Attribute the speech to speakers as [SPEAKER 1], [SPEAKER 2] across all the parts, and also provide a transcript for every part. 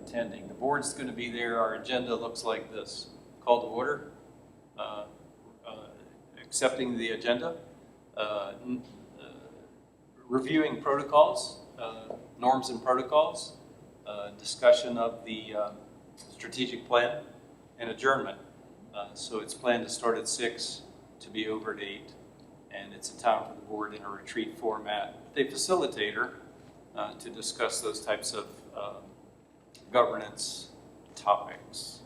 [SPEAKER 1] attending. The board's going to be there. Our agenda looks like this. Call to order. Uh, uh, Accepting the agenda. Uh, n- uh, Reviewing protocols, uh, norms and protocols. uh, Discussion of the uh, strategic plan and adjournment. Uh, So it's planned to start at six to be over at eight. And it's a time for the board in a retreat format. The facilitator, uh, to discuss those types of um, governance topics.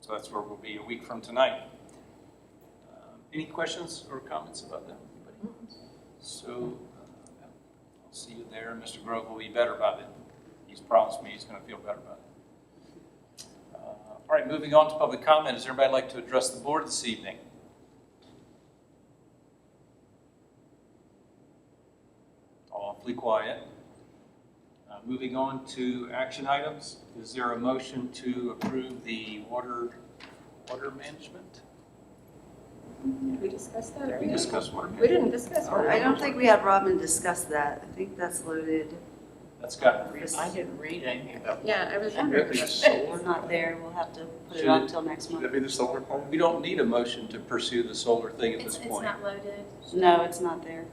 [SPEAKER 1] So that's where we'll be a week from tonight. Um, Any questions or comments about that? Anybody? So uh, I'll see you there. Mr. Grove will be better about it. He's promised me he's going to feel better about it. Uh, All right, moving on to public comment. Does everybody like to address the board this evening? Awfully quiet. Uh, Moving on to action items, is there a motion to approve the water, water management?
[SPEAKER 2] Did we discuss that
[SPEAKER 1] We
[SPEAKER 2] earlier?
[SPEAKER 1] discussed water
[SPEAKER 2] We
[SPEAKER 1] management.
[SPEAKER 2] didn't discuss
[SPEAKER 1] Oh,
[SPEAKER 2] that.
[SPEAKER 3] I don't think we had Robin discuss that. I think that's loaded.
[SPEAKER 1] That's got,
[SPEAKER 4] I didn't read any of it.
[SPEAKER 2] Yeah, I was wondering.
[SPEAKER 3] We're
[SPEAKER 4] Solar?
[SPEAKER 3] not there. We'll have to put it on till next
[SPEAKER 4] Should
[SPEAKER 3] month.
[SPEAKER 4] that be the solar plan?
[SPEAKER 1] we don't need a motion to pursue the solar thing at this
[SPEAKER 5] It's, it's
[SPEAKER 1] point.
[SPEAKER 5] not loaded.
[SPEAKER 3] No, it's not there.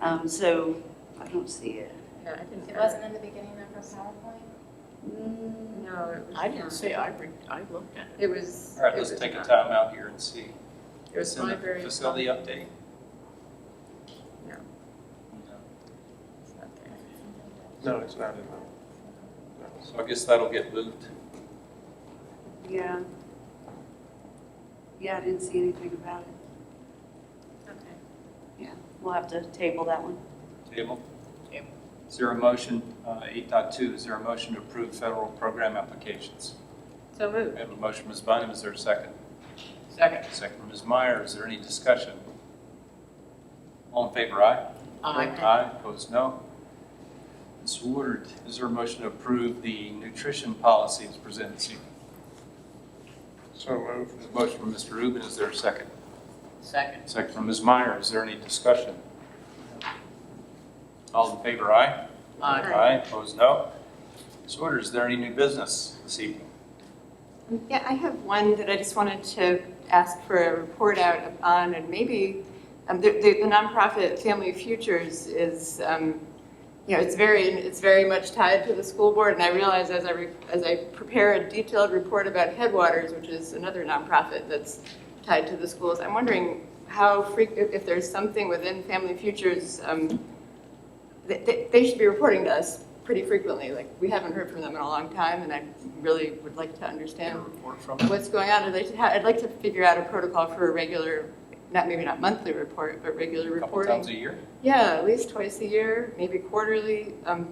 [SPEAKER 3] Um, so I don't see it.
[SPEAKER 2] Yeah, I didn't.
[SPEAKER 5] It wasn't in the beginning of her PowerPoint.
[SPEAKER 3] Mm,
[SPEAKER 2] No, it was.
[SPEAKER 4] I didn't
[SPEAKER 2] not.
[SPEAKER 4] see, I re, I looked at
[SPEAKER 2] It was.
[SPEAKER 1] All right,
[SPEAKER 2] it
[SPEAKER 1] let's
[SPEAKER 2] was
[SPEAKER 1] take a
[SPEAKER 2] not.
[SPEAKER 1] time out here and see.
[SPEAKER 2] It was
[SPEAKER 1] It's in the
[SPEAKER 2] library.
[SPEAKER 1] Facility update?
[SPEAKER 2] No.
[SPEAKER 1] No.
[SPEAKER 2] It's not there.
[SPEAKER 4] it. No, it's not in there.
[SPEAKER 1] So I guess that'll get moved.
[SPEAKER 3] Yeah. Yeah, I didn't see anything about it.
[SPEAKER 2] Okay.
[SPEAKER 3] We'll have to table that one.
[SPEAKER 1] Table?
[SPEAKER 4] Table.
[SPEAKER 1] Is there a motion, uh, 8.2, is there a motion to approve federal program applications?
[SPEAKER 2] So
[SPEAKER 1] We
[SPEAKER 2] moved.
[SPEAKER 1] have a motion, Ms. Bynum, is there a second?
[SPEAKER 4] Second.
[SPEAKER 1] Second, Ms. Meyer, is there any discussion? All in favor, aye?
[SPEAKER 4] I,
[SPEAKER 1] Aye, opposed, no. Ms. Woodard, is there a motion to approve the nutrition policy as presented this evening?
[SPEAKER 4] so moved.
[SPEAKER 1] There's a motion from Mr. Rubin, is there a second?
[SPEAKER 4] Second.
[SPEAKER 1] Second from Ms. Meyer, is there any discussion? All in favor, aye?
[SPEAKER 2] Aye.
[SPEAKER 1] opposed, no. Ms. Woodard, is there any new business this evening?
[SPEAKER 6] Yeah, I have one that I just wanted to ask for a report out on, and maybe, um, the, the the nonprofit Family Futures is, um, you know, it's very, it's very much tied to the school board, and I realized as I, re- as I prepare a detailed report about Headwaters, which is another nonprofit that's tied to the schools, I'm wondering how freq, if if there's something within Family Futures, um, they- they, they should be reporting to us pretty frequently, like, we haven't heard from them in a long time, and I really would like to
[SPEAKER 1] Get
[SPEAKER 6] understand
[SPEAKER 1] a report from
[SPEAKER 6] what's going on. I'd like to, ha- I'd like to figure out a protocol for a regular, not, maybe not monthly report, but regular
[SPEAKER 1] a couple
[SPEAKER 6] reporting.
[SPEAKER 1] times a year?
[SPEAKER 6] Yeah, at least twice a year, maybe quarterly. Um,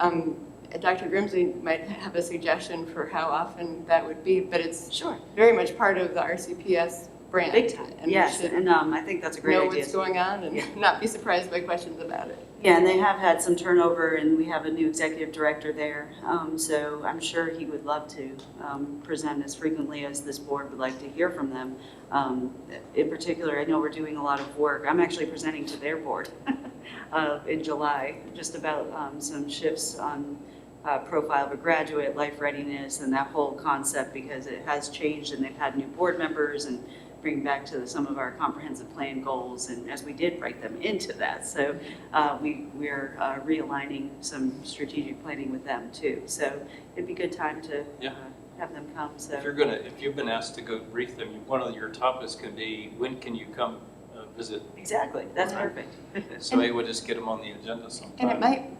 [SPEAKER 3] Mm-hmm.
[SPEAKER 6] um, Dr. Grimsley might have a suggestion for how often that would be, but it's
[SPEAKER 3] Sure.
[SPEAKER 6] very much part of the RCPS brand.
[SPEAKER 3] Big time.
[SPEAKER 6] And we
[SPEAKER 3] Yes,
[SPEAKER 6] should
[SPEAKER 3] and, um, I think that's a great
[SPEAKER 6] know
[SPEAKER 3] idea.
[SPEAKER 6] what's going on
[SPEAKER 3] Yeah.
[SPEAKER 6] and not be surprised by questions about it.
[SPEAKER 3] Yeah, and they have had some turnover, and we have a new executive director there. Um, So I'm sure he would love to um, present as frequently as this board would like to hear from them. Um, In particular, I know we're doing a lot of work. I'm actually presenting to their board uh, in July, just about um, some shifts on uh, profile of a graduate, life readiness, and that whole concept, because it has changed, and they've had new board members, and bring back to some of our comprehensive plan goals, and as we did write them into that. So uh, we, we're uh, realigning some strategic planning with them too. So it'd be a good time to
[SPEAKER 1] Yeah.
[SPEAKER 3] uh, have them come,
[SPEAKER 1] If
[SPEAKER 3] so.
[SPEAKER 1] you're gonna, if you've been asked to go brief them, you- one of your topics can be, when can you come uh, visit?
[SPEAKER 3] Exactly, that's
[SPEAKER 1] Right.
[SPEAKER 3] perfect.
[SPEAKER 1] So maybe we'll just get them on the agenda sometime.
[SPEAKER 6] And it might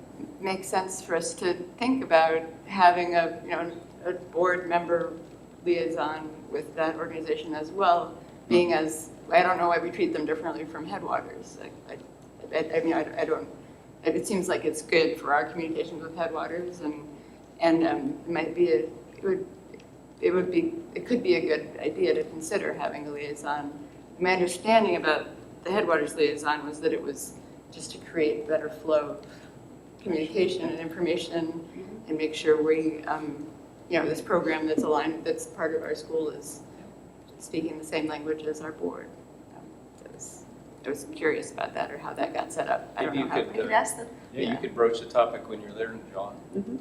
[SPEAKER 6] make sense for us to think about having a, you know, a board member liaison with that organization as well, being as, I don't know why we treat them differently from Headwaters. Like, I, I, I mean, I I don't, it it seems like it's good for our communications with Headwaters and, and um, it might be, a it would, it would be, it could be a good idea to consider having a liaison. My understanding about the Headwaters liaison was that it was just to create better flow of communication and information and make sure we, um, you know, this program that's aligned, that's part of our school is speaking the same language as our board. Um, that was- I was curious about that or how that got set up. I don't
[SPEAKER 1] Maybe
[SPEAKER 6] know
[SPEAKER 1] you
[SPEAKER 6] how.
[SPEAKER 1] could,
[SPEAKER 3] I could ask them.
[SPEAKER 1] Yeah, you could broach the topic when you're there, John.
[SPEAKER 3] Mhm.